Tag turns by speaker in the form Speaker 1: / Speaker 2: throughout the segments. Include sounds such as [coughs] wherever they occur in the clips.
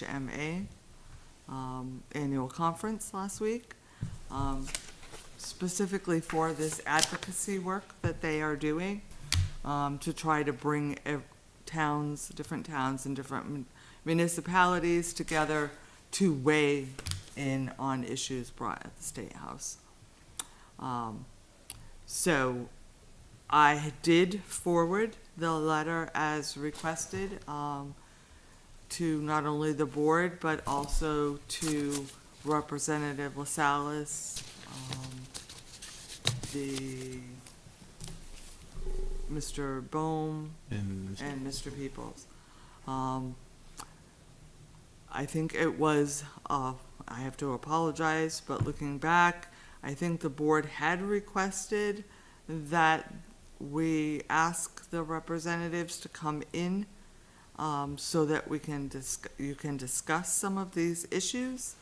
Speaker 1: IHMA um, annual conference last week, um, specifically for this advocacy work that they are doing um, to try to bring ev- towns, different towns and different mun- municipalities together to weigh in on issues brought at the State House. Um, So I did forward the letter as requested um, to not only the board, but also to Representative LaSalle's, um, the, Mr. Bohm,
Speaker 2: And
Speaker 1: and Mr. Peoples. Um, I think it was, uh, I have to apologize, but looking back, I think the board had requested that we ask the representatives to come in um, so that we can disc, you can discuss some of these issues.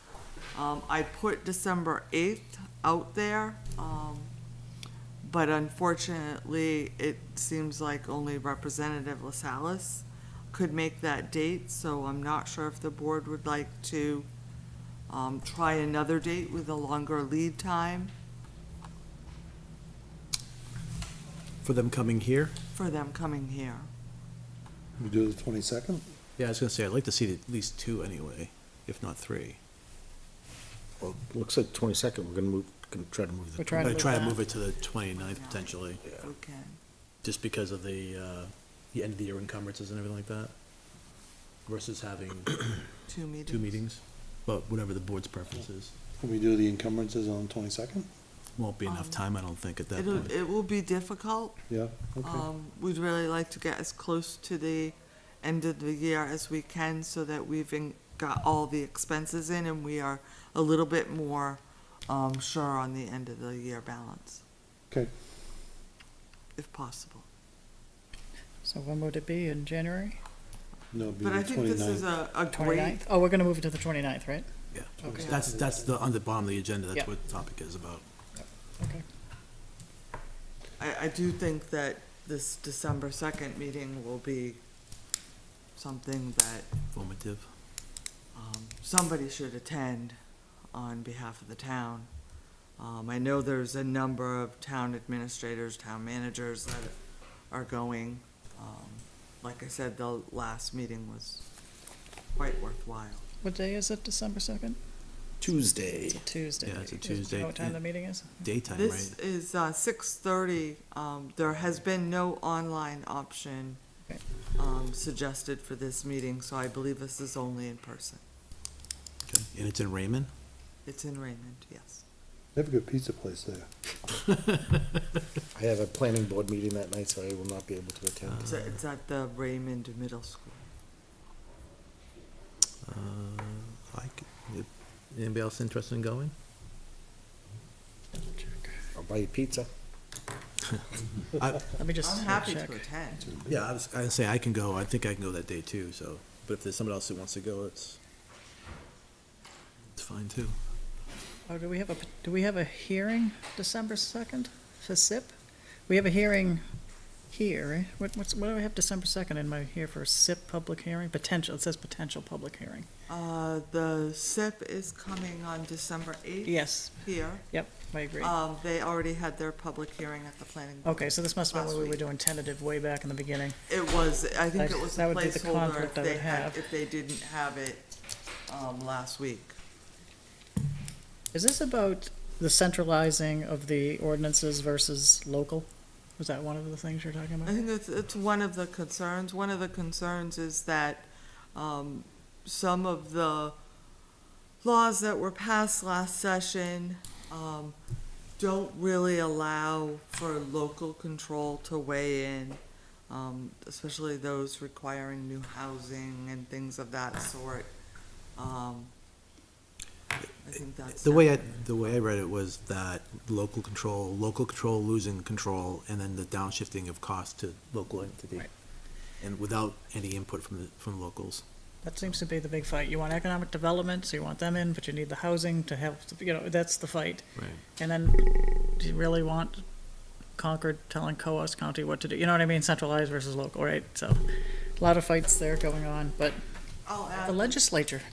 Speaker 1: Um, I put December eighth out there, um, but unfortunately, it seems like only Representative LaSalle's could make that date, so I'm not sure if the board would like to, um, try another date with a longer lead time
Speaker 2: for them coming here,
Speaker 1: for them coming here.
Speaker 3: We do the twenty-second?
Speaker 2: yeah, I was gonna say, I'd like to see at least two anyway, if not three.
Speaker 4: Well, it looks like twenty-second, we're gonna move, gonna try to move the.
Speaker 5: We're trying
Speaker 2: I'm gonna
Speaker 5: to move
Speaker 2: try to
Speaker 5: that.
Speaker 2: move it to the 29th potentially,
Speaker 1: If we can.
Speaker 2: just because of the, uh, the end of the year encumbrances and everything like that. Versus
Speaker 5: [coughs]
Speaker 2: having
Speaker 1: Two meetings.
Speaker 2: two meetings, but whatever the board's preference is.
Speaker 3: Can we do the encumbrances on twenty-second?
Speaker 2: Won't be enough
Speaker 1: Um,
Speaker 2: time, I don't think, at that
Speaker 1: It'll,
Speaker 2: point.
Speaker 1: it will be difficult.
Speaker 3: Yeah, okay.
Speaker 1: Um, we'd really like to get as close to the end of the year as we can so that we've in- got all the expenses in and we are a little bit more, um, sure on the end of the year balance,
Speaker 3: Okay,
Speaker 1: if possible.
Speaker 5: So when would it be, in January?
Speaker 3: no, it'd be
Speaker 1: But I
Speaker 3: the
Speaker 1: think this is
Speaker 3: twenty-ninth.
Speaker 1: a, a great,
Speaker 5: 29th? Oh, we're gonna move it to the 29th, right?
Speaker 2: Yeah,
Speaker 1: Okay.
Speaker 2: that's, that's the, on the bottom of the agenda,
Speaker 5: Yeah.
Speaker 2: that's what the topic is about.
Speaker 5: Okay.
Speaker 1: I, I do think that this December second meeting will be something that,
Speaker 2: Formative.
Speaker 1: um, somebody should attend on behalf of the town. Um, I know there's a number of town administrators, town managers that are going. Um, like I said, the last meeting was quite worthwhile.
Speaker 5: What day is it, December 2nd?
Speaker 4: Tuesday.
Speaker 5: It's a Tuesday.
Speaker 2: Yeah, it's a
Speaker 5: Is- do you know
Speaker 2: Tuesday.
Speaker 5: what time the meeting is?
Speaker 2: Daytime,
Speaker 1: This
Speaker 2: right?
Speaker 1: is, uh, six thirty, um, there has been no online option,
Speaker 5: Okay.
Speaker 1: um, suggested for this meeting, so I believe this is only in person.
Speaker 2: Okay. And it's in Raymond?
Speaker 1: It's in Raymond, yes.
Speaker 3: They have a good pizza place there.
Speaker 4: I have a planning board meeting that night, so I will not be able to
Speaker 5: Ah.
Speaker 4: attend.
Speaker 1: So it's at the Raymond Middle School.
Speaker 2: Uh, I could, anybody else interested in going?
Speaker 4: I'll buy you pizza.
Speaker 5: Let me just
Speaker 1: I'm
Speaker 5: uh,
Speaker 1: happy
Speaker 5: check.
Speaker 1: to attend.
Speaker 2: Yeah, I was, I was saying, I can go, I think I can go that day too, so, but if there's somebody else who wants to go, it's, it's fine too.
Speaker 5: Oh, do we have a, do we have a hearing December 2nd for SIP? We have a hearing here, right? What, what's, what do I have December 2nd in my, here for a SIP public hearing? Potential, it says potential public hearing.
Speaker 1: Uh, the SIP is coming on December eighth.
Speaker 5: Yes,
Speaker 1: Here.
Speaker 5: yep, I agree.
Speaker 1: Um, they already had their public hearing at the planning. board.
Speaker 5: Okay, so this must have been
Speaker 1: last
Speaker 5: what we were
Speaker 1: week.
Speaker 5: doing tentative way back in the beginning.
Speaker 1: It was, I think
Speaker 5: I-
Speaker 1: it was a
Speaker 5: that would be the
Speaker 1: placeholder if
Speaker 5: conflict I
Speaker 1: they
Speaker 5: would
Speaker 1: had,
Speaker 5: have.
Speaker 1: if they didn't have it, um, last week.
Speaker 5: Is this about the centralizing of the ordinances versus local? Was that one of the things you're talking
Speaker 1: I
Speaker 5: about?
Speaker 1: think it's, it's one of the concerns. One of the concerns is that, um, some of the laws that were passed last session, um, don't really allow for local control to weigh in, um, especially those requiring new housing and things of that sort. Um, I think that's.
Speaker 2: The way I, the way I read it was that local control, local control losing control, and then the downshifting of cost to local entity.
Speaker 5: Right.
Speaker 2: And without any input from the, from locals.
Speaker 5: That seems to be the big fight. You want economic development, so you want them in, but you need the housing to have, you know, that's the fight.
Speaker 2: Right.
Speaker 5: And then, do you really want Concord telling Coas County what to do? You know what I mean? Centralized versus local, right? So, a lot of fights there going on, but
Speaker 1: I'll add.
Speaker 5: the legislature.